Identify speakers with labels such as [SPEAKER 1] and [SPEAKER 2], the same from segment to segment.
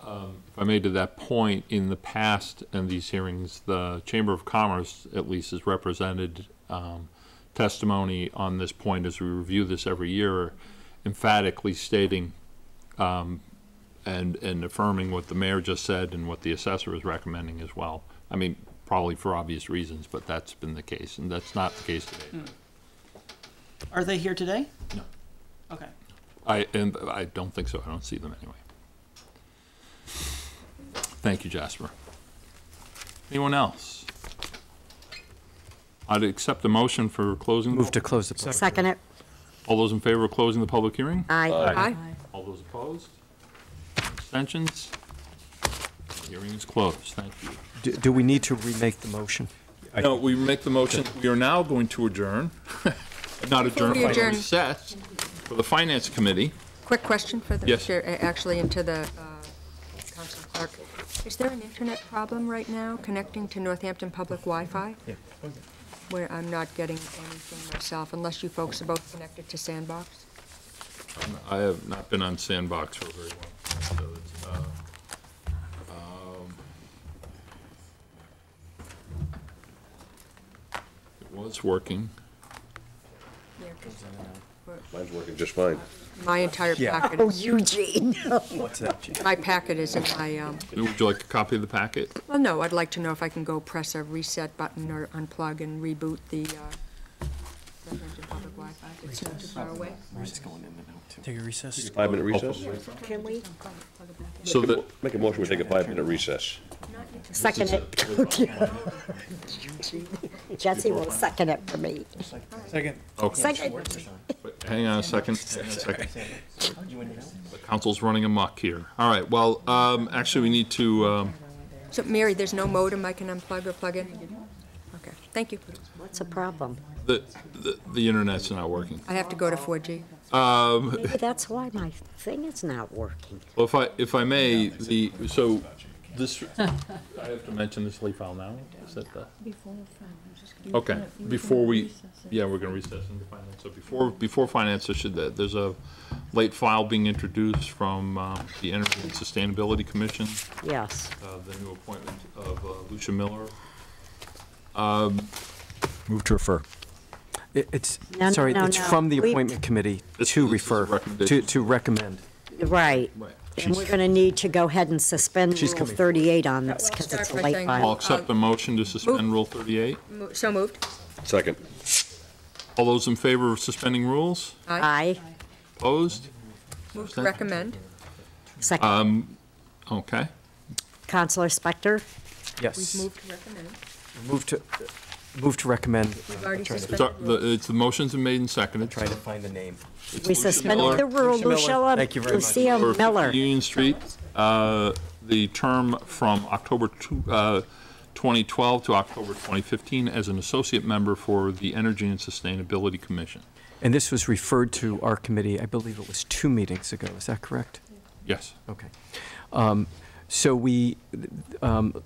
[SPEAKER 1] If I made to that point, in the past, in these hearings, the Chamber of Commerce at least has represented um, testimony on this point as we review this every year, emphatically stating um, and, and affirming what the mayor just said and what the assessor is recommending as well. I mean, probably for obvious reasons, but that's been the case, and that's not the case today.
[SPEAKER 2] Are they here today?
[SPEAKER 1] No.
[SPEAKER 2] Okay.
[SPEAKER 1] I, and I don't think so, I don't see them anyway. Thank you, Jasper. Anyone else? I'd accept the motion for closing.
[SPEAKER 3] Move to close the public.
[SPEAKER 4] Second it.
[SPEAKER 1] All those in favor of closing the public hearing?
[SPEAKER 4] Aye. Aye.
[SPEAKER 1] All those opposed? Abstentions? Hearing is closed, thank you.
[SPEAKER 3] Do- Do we need to remake the motion?
[SPEAKER 1] No, we make the motion, we are now going to adjourn, not adjourn,
[SPEAKER 4] Before we
[SPEAKER 1] but
[SPEAKER 4] adjourn.
[SPEAKER 1] recess for the Finance Committee.
[SPEAKER 4] Quick question for the,
[SPEAKER 1] Yes.
[SPEAKER 4] chair- uh, actually, into the uh, Council Clerk. Is there an internet problem right now connecting to Northampton Public Wi-Fi? Where I'm not getting anything myself, unless you folks are both connected to Sandbox?
[SPEAKER 1] I have not been on Sandbox for very long, so it's, uh, um, it was working.
[SPEAKER 4] Yeah, 'cause
[SPEAKER 5] Mine's working just fine.
[SPEAKER 4] My entire
[SPEAKER 3] Yeah.
[SPEAKER 4] packet.
[SPEAKER 6] Oh, Eugene.
[SPEAKER 3] What's that, Jim?
[SPEAKER 4] My packet is in my, um,
[SPEAKER 1] Would you like a copy of the packet?
[SPEAKER 4] well, no, I'd like to know if I can go press a reset button or unplug and reboot the uh, Northampton Public Wi-Fi. It's not too far away.
[SPEAKER 3] Take a recess.
[SPEAKER 5] Five-minute recess?
[SPEAKER 6] Can we?
[SPEAKER 1] So that,
[SPEAKER 5] Make a motion, we take a five-minute recess.
[SPEAKER 6] Second it. Jesse will second it for me.
[SPEAKER 1] okay,
[SPEAKER 6] Second.
[SPEAKER 1] but hang on a second, hang on a second. The council's running amok here. All right, well, um, actually, we need to, um,
[SPEAKER 4] So, Mary, there's no modem I can unplug or plug in? Okay, thank you.
[SPEAKER 6] What's the problem?
[SPEAKER 1] the, the- the internet's not working.
[SPEAKER 4] I have to go to 4G.
[SPEAKER 6] Maybe that's why my thing is not working.
[SPEAKER 1] Well, if I, if I may, the, so, this, I have to mention this leaf file now, is that the? Okay, before we, yeah, we're gonna recess into finance, so before, before finance, I should, there's a late file being introduced from, uh, the Energy and Sustainability Commission,
[SPEAKER 6] Yes.
[SPEAKER 1] uh, the new appointment of uh, Lucia Miller. Um,
[SPEAKER 3] Move to refer. It's,
[SPEAKER 6] No, no,
[SPEAKER 3] sorry,
[SPEAKER 6] no,
[SPEAKER 3] it's
[SPEAKER 6] no.
[SPEAKER 3] from the
[SPEAKER 6] We-
[SPEAKER 3] appointment committee
[SPEAKER 1] This-
[SPEAKER 3] to
[SPEAKER 1] this is a
[SPEAKER 3] refer, to
[SPEAKER 1] recommendation.
[SPEAKER 3] to recommend.
[SPEAKER 6] Right.
[SPEAKER 1] Right.
[SPEAKER 6] And we're going to need to go ahead and suspend
[SPEAKER 3] She's
[SPEAKER 6] Rule
[SPEAKER 3] coming.
[SPEAKER 6] 38 on this because
[SPEAKER 4] start
[SPEAKER 6] it's a
[SPEAKER 4] by
[SPEAKER 6] late
[SPEAKER 4] saying-
[SPEAKER 1] I'll
[SPEAKER 6] file.
[SPEAKER 1] accept the motion to suspend Rule thirty-eight.
[SPEAKER 4] Mo- So moved.
[SPEAKER 5] Second.
[SPEAKER 1] All those in favor of suspending rules?
[SPEAKER 6] Aye.
[SPEAKER 1] Opposed?
[SPEAKER 4] Move to recommend.
[SPEAKER 6] Second.
[SPEAKER 1] Okay.
[SPEAKER 6] Counselor Spector?
[SPEAKER 3] Yes.
[SPEAKER 4] Move to recommend.
[SPEAKER 3] Move to, move to recommend.
[SPEAKER 4] We've already
[SPEAKER 1] It's, our-
[SPEAKER 4] suspended.
[SPEAKER 1] the, it's, the motion's been made and seconded.
[SPEAKER 3] Trying to find the name.
[SPEAKER 6] We
[SPEAKER 1] Lucia Miller.
[SPEAKER 6] suspended the rule. Lucia,
[SPEAKER 3] Thank you very much.
[SPEAKER 6] Lucia
[SPEAKER 1] for
[SPEAKER 6] Miller.
[SPEAKER 1] Union Street, uh, the term from October two- uh, 2012 to October 2015 as an associate member for the Energy and Sustainability Commission.
[SPEAKER 3] And this was referred to our committee, I believe it was two meetings ago, is that correct?
[SPEAKER 1] Yes.
[SPEAKER 3] Okay. Um, So we, um,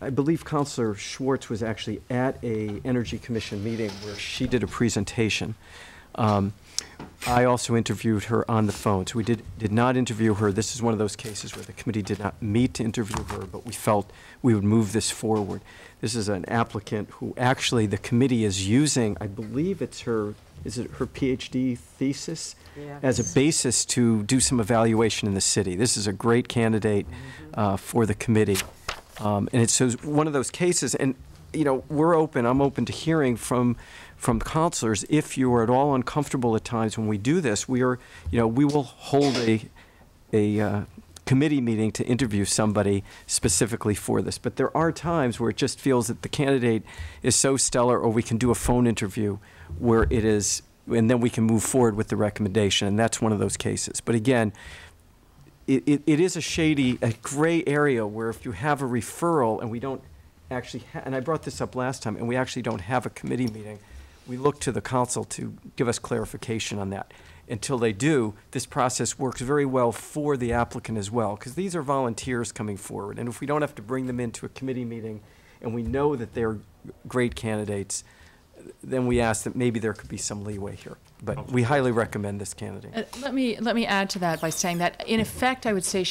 [SPEAKER 3] I believe Counselor Schwartz was actually at a Energy Commission meeting where she did a presentation. Um, I also interviewed her on the phone, so we did, did not interview her. This is one of those cases where the committee did not meet to interview her, but we felt we would move this forward. This is an applicant who actually the committee is using, I believe it's her, is it her PhD thesis?
[SPEAKER 6] Yeah.
[SPEAKER 3] As a basis to do some evaluation in the city. This is a great candidate uh, for the committee. Um, And it's so it's one of those cases, and, you know, we're open, I'm open to hearing from, from counselors. If you are at all uncomfortable at times when we do this, we are, you know, we will hold a, a uh, committee meeting to interview somebody specifically for this. But there are times where it just feels that the candidate is so stellar, or we can do a phone interview where it is, and then we can move forward with the recommendation, and that's one of those cases. But again, it, it, it is a shady, a gray area where if you have a referral and we don't actually, ha- and I brought this up last time, and we actually don't have a committee meeting, we look to the council to give us clarification on that. Until they do, this process works very well for the applicant as well, because these are volunteers coming forward. And if we don't have to bring them into a committee meeting and we know that they're great candidates, then we ask that maybe there could be some leeway here. But we highly recommend this candidate.
[SPEAKER 7] Uh, Let me, let me add to that by saying that, in effect, I would say